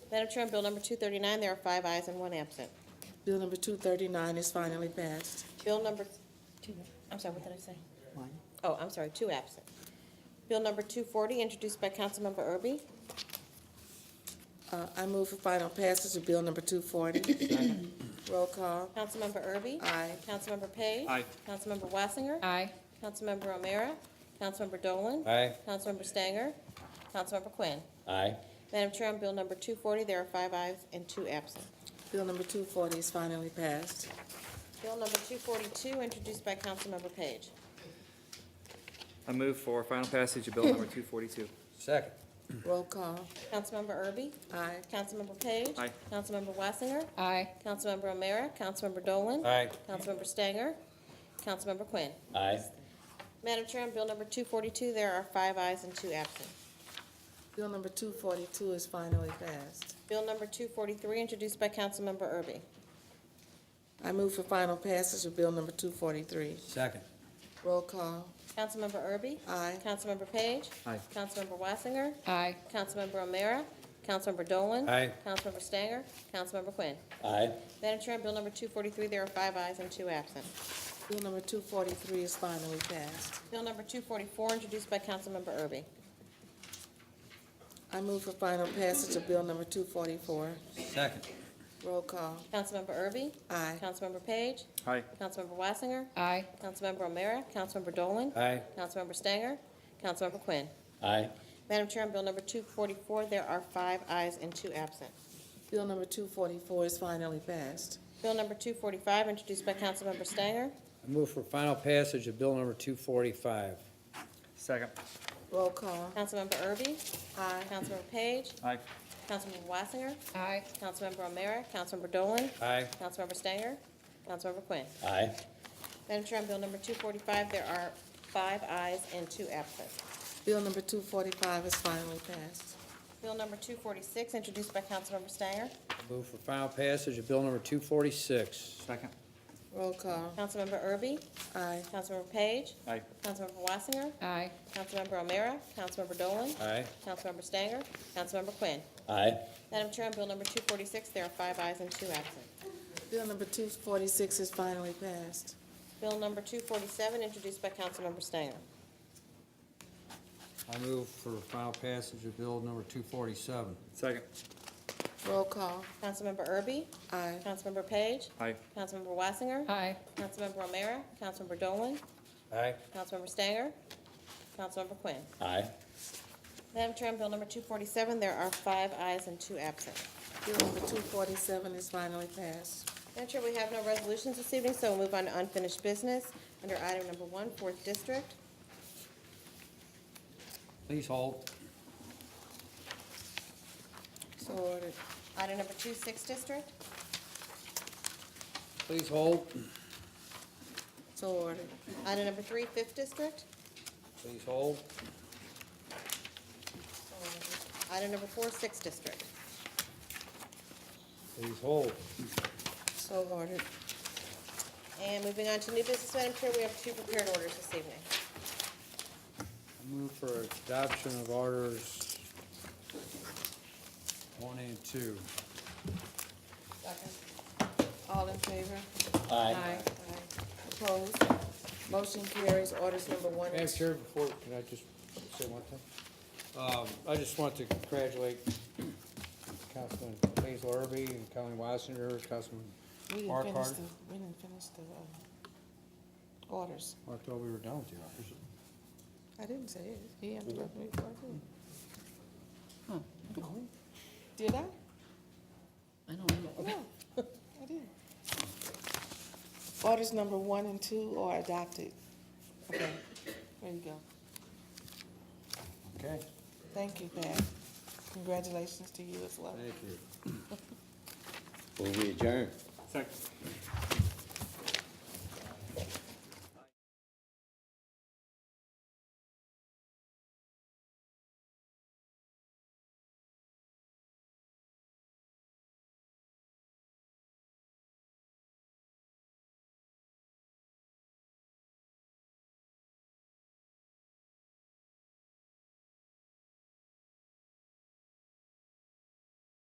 Madam Chair, on Bill number 239, there are five ayes and one absent. Bill number 239 is finally passed. Bill number, two, I'm sorry, what did I say? Oh, I'm sorry, two absent. Bill number 240, introduced by Councilmember Erby. Uh, I move for final passage of bill number 240. Roll call. Councilmember Erby? Aye. Councilmember Page? Aye. Councilmember Wassinger? Aye. Councilmember O'Meara? Councilmember Dolan? Aye. Councilmember Stanger? Councilmember Quinn? Aye. Madam Chair, on Bill number 240, there are five ayes and two absent. Bill number 240 is finally passed. Bill number 242, introduced by Councilmember Page. I move for final passage of bill number 242. Second. Roll call. Councilmember Erby? Aye. Councilmember Page? Aye. Councilmember Wassinger? Aye. Councilmember O'Meara? Councilmember Dolan? Aye. Councilmember Stanger? Councilmember Quinn? Aye. Madam Chair, on Bill number 242, there are five ayes and two absent. Bill number 242 is finally passed. Bill number 243, introduced by Councilmember Erby. I move for final passage of bill number 243. Second. Roll call. Councilmember Erby? Aye. Councilmember Page? Aye. Councilmember Wassinger? Aye. Councilmember O'Meara? Councilmember Dolan? Aye. Councilmember Stanger? Councilmember Quinn? Aye. Madam Chair, on Bill number 243, there are five ayes and two absent. Bill number 243 is finally passed. Bill number 244, introduced by Councilmember Erby. I move for final passage of bill number 244. Second. Roll call. Councilmember Erby? Aye. Councilmember Page? Aye. Councilmember Wassinger? Aye. Councilmember O'Meara? Councilmember Dolan? Aye. Councilmember Stanger? Councilmember Quinn? Aye. Madam Chair, on Bill number 244, there are five ayes and two absent. Bill number 244 is finally passed. Bill number 245, introduced by Councilmember Stanger. I move for final passage of bill number two forty-five. Second. Roll call. Councilmember Erby? Aye. Councilmember Page? Aye. Councilmember Wassinger? Aye. Councilmember O'Meara? Councilmember Dolan? Aye. Councilmember Stanger? Councilmember Quinn? Aye. Madam Chair, on Bill number 245, there are five ayes and two absent. Bill number 245 is finally passed. Bill number 246, introduced by Councilmember Stanger. Move for final passage of bill number two forty-six. Second. Roll call. Councilmember Erby? Aye. Councilmember Page? Aye. Councilmember Wassinger? Aye. Councilmember O'Meara? Councilmember Dolan? Aye. Councilmember Stanger? Councilmember Quinn? Aye. Madam Chair, on Bill number 246, there are five ayes and two absent. Bill number 246 is finally passed. Bill number 247, introduced by Councilmember Stanger. I move for final passage of bill number two forty-seven. Second. Roll call. Councilmember Erby? Aye. Councilmember Page? Aye. Councilmember Wassinger? Aye. Councilmember O'Meara? Councilmember Dolan? Aye. Councilmember Stanger? Councilmember Quinn? Aye. Madam Chair, on Bill number 247, there are five ayes and two absent. Bill number 247 is finally passed. Madam Chair, we have no resolutions this evening, so we'll move on to unfinished business under item number one, Fourth District. Please hold. So ordered. Item number two, Sixth District. Please hold. So ordered. Item number three, Fifth District. Please hold. Item number four, Sixth District. Please hold. So ordered. And moving on to new business, Madam Chair, we have two prepared orders this evening. I move for adoption of orders one and two. All in favor? Aye. Opposed? Motion carries. Orders number one Madam and two. Chair, before, can I just say one thing? Um, I just want to congratulate Councilman Hazel Irby and Colleen Wassinger, Councilman We didn't finish Markart. the, we didn't finish the uh, orders. I thought we were done with the officers. I didn't say it. He interrupted me before I did. Did I? I don't know. No, I didn't. Orders number one and two are adopted. Okay, there you go. Okay, Thank you, Pat. Congratulations to you as well. thank you. Will we adjourn? Second.